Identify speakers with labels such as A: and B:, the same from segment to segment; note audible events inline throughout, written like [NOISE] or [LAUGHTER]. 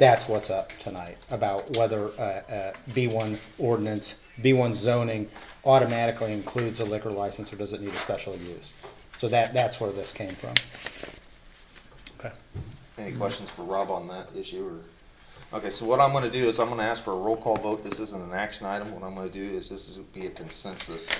A: That's what's up tonight about whether uh, uh, B1 ordinance, B1 zoning automatically includes a liquor license or does it need a special use? So that, that's where this came from. Okay.
B: Any questions for Rob on that issue or? Okay, so what I'm gonna do is I'm gonna ask for a roll call vote. This isn't an action item. What I'm gonna do is this is be a consensus.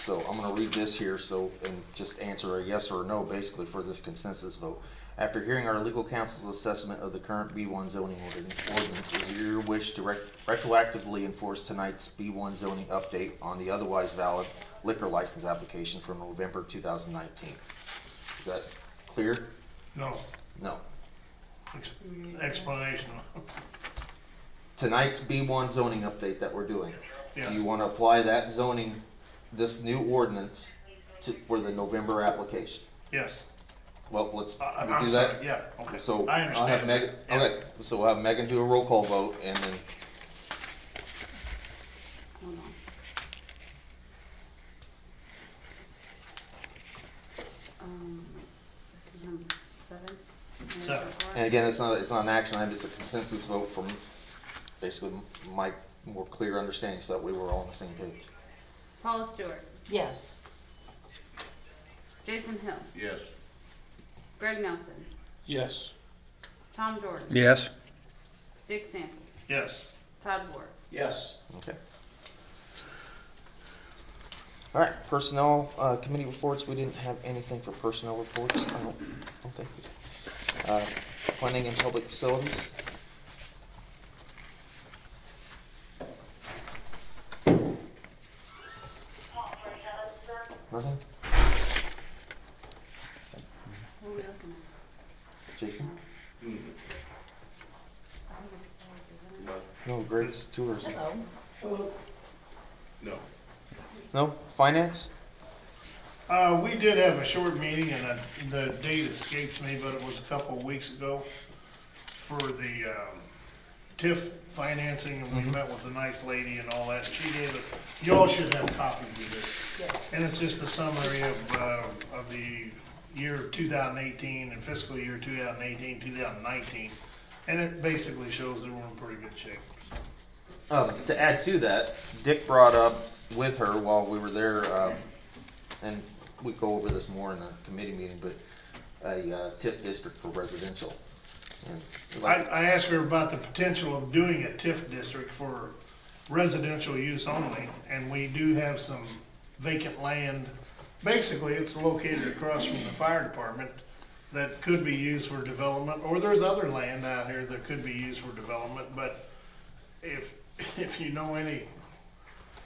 B: So I'm gonna read this here, so, and just answer a yes or a no basically for this consensus vote. After hearing our legal counsel's assessment of the current B one zoning ordin- ordinance, is it your wish to rec- retroactively enforce tonight's B one zoning update on the otherwise valid liquor license application from November two thousand nineteen? Is that clear?
C: No,
B: No.
C: ex- explanation. [LAUGHS]
B: tonight's B1 zoning update that we're doing, do
C: Yes.
B: you want to apply that zoning, this new ordinance to, for the November application?
C: Yes.
B: Well, let's
C: I- I-
B: we do
C: I'm
B: that.
C: sorry, Yeah, okay.
B: So
C: I
B: I'll have
C: understand.
B: Megan,
C: Yeah.
B: okay, so we'll have Megan do a roll call vote and then,
D: Hold on. Um, this is number seven. Mayor
C: Seven.
D: Pro Tem.
B: and again, it's not, it's not an action item, it's a consensus vote from basically my more clear understanding, so that we were all on the same page.
D: Paula Stewart,
E: Yes.
D: Jason Hill,
F: Yes.
D: Greg Nelson,
F: Yes.
D: Tom Jordan,
A: Yes.
D: Dick Sampson,
C: Yes,
D: Todd Ward.
F: Yes.
B: Okay. All right, personnel, uh, committee reports, we didn't have anything for personnel reports, I don't, don't think. we did. Uh, planning and public facilities, nothing?
D: Who are we looking
B: Jason? No, Greg's tourism.
E: Hello.
F: No.
B: No, finance?
C: uh, we did have a short meeting and uh, the date escapes me, but it was a couple of weeks ago for the, um, TIF financing and we met with a nice lady and all that. She gave us, y'all should have copies of this.
E: Yes.
C: And it's just a summary of, uh, of the year 2018 and fiscal year 2018, 2019. And it basically shows that we're in pretty good shape.
B: Um, to add to that, Dick brought up with her while we were there, um, and we go over this more in the committee meeting, but a uh, TIP district for residential. And
C: I,
B: like,
C: I asked her about the potential of doing a TIF district for residential use only, and we do have some vacant land. Basically, it's located across from the fire department that could be used for development, or there's other land out here that could be used for development, but if, [LAUGHS] if you know any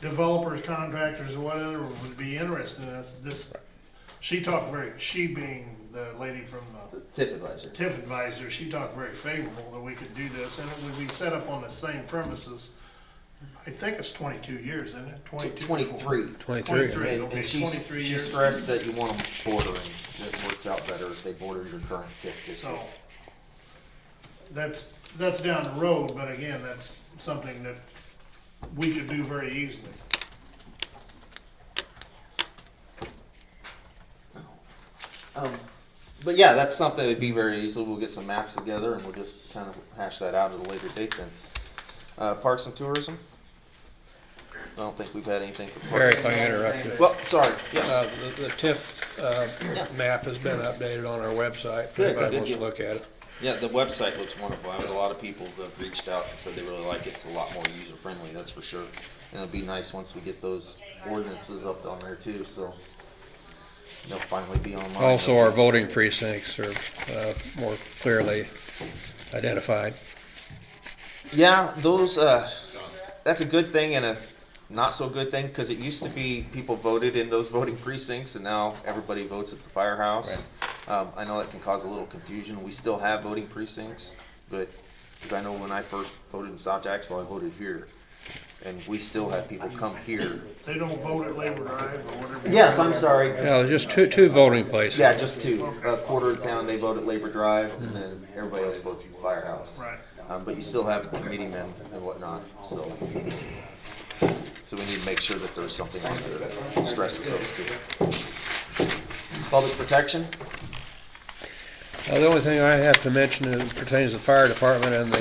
C: developers, contractors, or whatever would be interested in this, this, she talked very, she being the lady from the
B: the TIP advisor.
C: TIF advisor, she talked very favorable that we could do this, and it would be set up on the same premises. I think it's twenty-two years, isn't it? Twenty-two.
B: Twenty-three.
C: Twenty-three,
B: And,
C: okay,
B: and she,
C: twenty-three
B: she
C: years.
B: stressed that you want them bordering, that works out better if they border your current TIP district.
C: So, that's, that's down the road, but again, that's something that we could do very easily.
B: Um, but yeah, that's something that'd be very easy. We'll get some maps together and we'll just kind of hash that out at a later date then. Uh, parks and tourism? I don't think we've had anything for
G: Barry,
B: parks.
G: if I can interrupt you.
B: Well, sorry,
G: Uh,
B: yes,
G: the- The TIF uh, map has been updated on our website, if
B: Good,
G: anybody
B: good
G: wants to
B: deal.
G: look at it.
B: yeah, the website looks wonderful. I had a lot of people that have reached out and said they really like it. It's a lot more user friendly, that's for sure. And it'll be nice once we get those ordinances up on there too, so they'll finally be online.
G: Also, our voting precincts are uh, more clearly identified.
B: Yeah, those. Uh, that's a good thing and a not so good thing because it used to be people voted in those [LAUGHS] voting precincts, and now everybody votes at the firehouse. Um, I know that can cause a little confusion. We still have voting precincts, but because I know when I first voted in South Jacksonville, I voted here, and we still have people come here.
C: They don't vote at Labor Drive or whatever.
B: Yes, I'm sorry.
G: Yeah, there's just two, two voting places.
B: Yeah, just two. A quarter of town they vote at Labor Drive, and then everybody else votes at the firehouse.
C: Right.
B: Um, but you still have committee men and whatnot, so. So we need to make sure that there's something on there that stresses those two. Public protection?
G: Uh, The only thing I have to mention is- pertains to the fire department and the